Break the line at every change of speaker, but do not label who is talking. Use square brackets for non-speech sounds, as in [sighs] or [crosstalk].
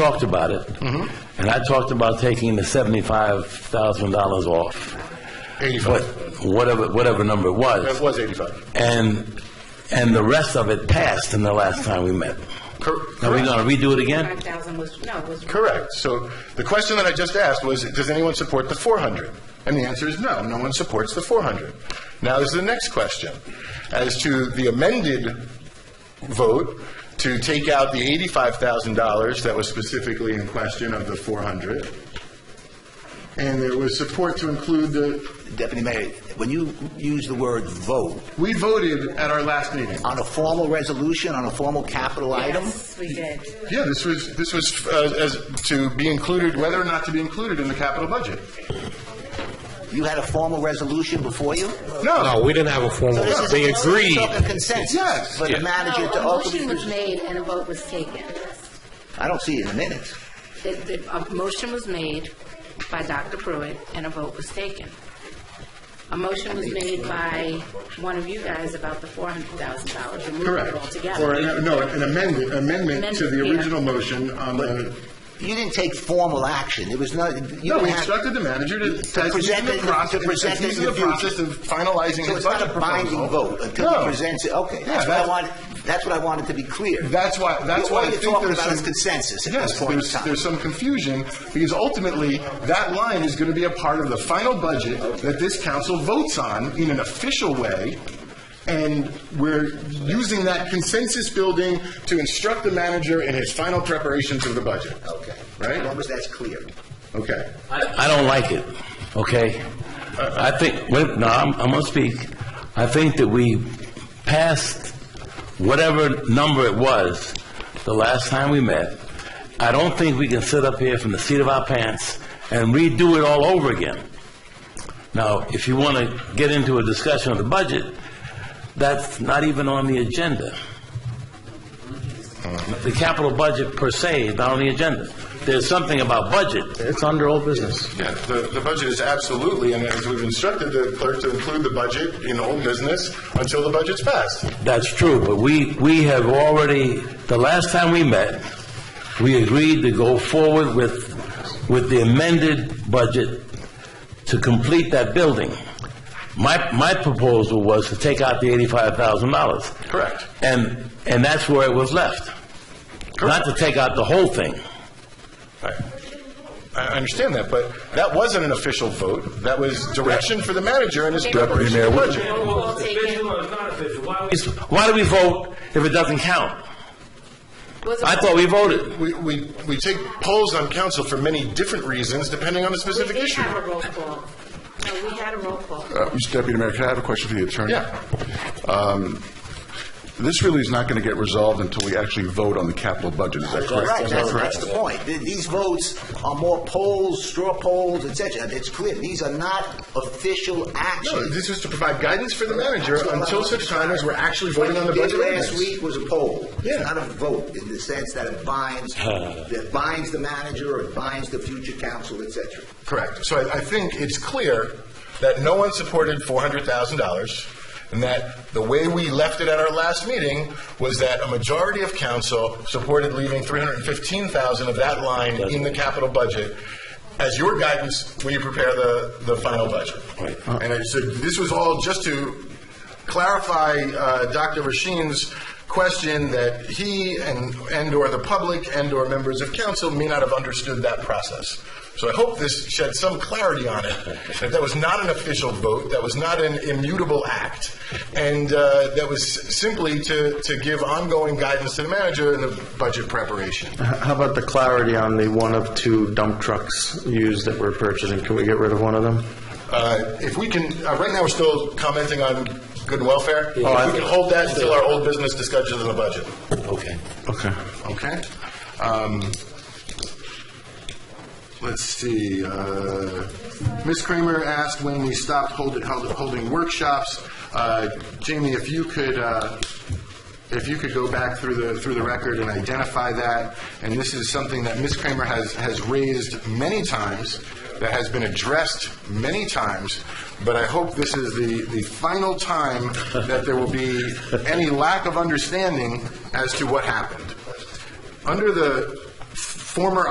talked about it,
Mm-hmm.
and I talked about taking the $75,000 off.
85.
But whatever, whatever number it was.
That was 85.
And, and the rest of it passed in the last time we met.
Cor-
Are we
correct.
going to redo it again?
5,000 was, no, was.
Correct. So the question that I just asked was, does anyone support the 400? And the answer is no, no one supports the 400. Now is the next question. As to the amended vote to take out the $85,000 that was specifically in question of the 400, and there was support to include the,
Deputy Mayor, when you use the word vote,
we voted at our last meeting.
on a formal resolution, on a formal capital item?
Yes, we did.
Yeah, this was, this was uh, as to be included, whether or not to be included in the capital budget.
You had a formal resolution before you?
No, we didn't have a formal,
This is-
they agreed.
We're talking consensus
Yes.
for the
Yeah.
manager to
No, a motion was
ultimately...
made and a vote was taken.
I don't see it in the minutes.
The, the, a motion was made by Dr. Pruitt and a vote was taken. A motion was made by one of you guys about the $400,000, removing it
Correct.
altogether.
Or, an- no, an amendment, amendment to the
Amendment, yeah.
original motion on the,
You didn't take formal action. There was no... you
no, we
had-
instructed the manager to, as
To
he's in
present
the
it, to
process, as
present
he's in
it in
the
the
process
future.
of finalizing
So
his
it's not
budget
a binding
proposal.
vote until
No.
he presents it, okay.
Yeah,
That's what I
that's-
wanted, that's what I wanted to be clear.
That's why, that's why I think there's some...
All you're talking about is consensus at this
Yes,
point in
there's,
time.
there's some confusion, because ultimately, that line is going to be a part of the final budget that this council votes on in an official way, and we're using that consensus building to instruct the manager in his final preparations of the budget.
Okay.
Right?
As long as that's clear.
Okay.
I I don't like it, okay? I think, wait, no, I'm, I'm gonna speak. I think that we passed whatever number it was the last time we met. I don't think we can sit up here from the seat of our pants and redo it all over again. Now, if you want to get into a discussion of the budget, that's not even on the agenda. The capital budget per se is not on the agenda. There's something about budget. It's under old business.
Yeah, the, the budget is absolutely, and as we've instructed the clerk to include the budget in old business until the budget's passed.
That's true, but we, we have already, the last time we met, we agreed to go forward with, with the amended budget to complete that building. My, my proposal was to take out the eighty-five thousand dollars.
Correct.
And, and that's where it was left. Not to take out the whole thing.
I I understand that, but that wasn't an official vote. That was direction for the manager and his preparation of the budget.
All taken.
Why do we vote if it doesn't count?
Was a-
I thought we voted.
We, we, we take polls on council for many different reasons, depending on the
We
specific
did
issue.
have a roll call. No, we had a roll call.
Uh, Mr. Deputy Mayor, can I have a question for the attorney?
Yeah.
Um, This really is not going to get resolved until we actually vote on the capital budget, is that correct?
Right,
Is that
that's,
correct?
that's the point. Th- These votes are more polls, straw polls, et cetera. It's clear, these are not official
No,
actions.
this is to provide guidance for the manager until such time as we're actually voting on the
What
budget.
you did last
ordinance.
week was a poll.
Yeah.
It's not a vote in the sense that it [sighs] binds, that binds the manager or it binds the future council, et cetera.
Correct. So I, I think it's clear that no one supported four hundred thousand dollars, and that the way we left it at our last meeting was that a majority of council supported leaving three hundred and fifteen thousand of that line in the capital budget as your guidance when you prepare the, the final budget.
Right.
And I said, this was all just to clarify uh, Dr. Rasheen's question that he and, and/or the public and/or members of council may not have understood that process. So I hope this shed some clarity on it, that that was not an official vote, that was not an immutable act, and uh, that was simply to, to give ongoing guidance to the manager in the budget preparation.
How about the clarity on the one of two dump trucks used that we're purchasing? Can we get rid of one of them?
Uh, If we can, uh, right now, we're still commenting on good and welfare. If we
I-
can hold that until our old business discussions on the budget.
Okay.
Okay.
Okay. Um, Let's see, uh, Ms. Kramer asked when we stopped hold- held- holding workshops. Uh, Jamie, if you could, uh, if you could go back through the, through the record and identify that, and this is something that Ms. Kramer has, has raised many times, that has been addressed many times, but I hope this is the, the final time that there will be any lack of understanding as to what happened. Under the former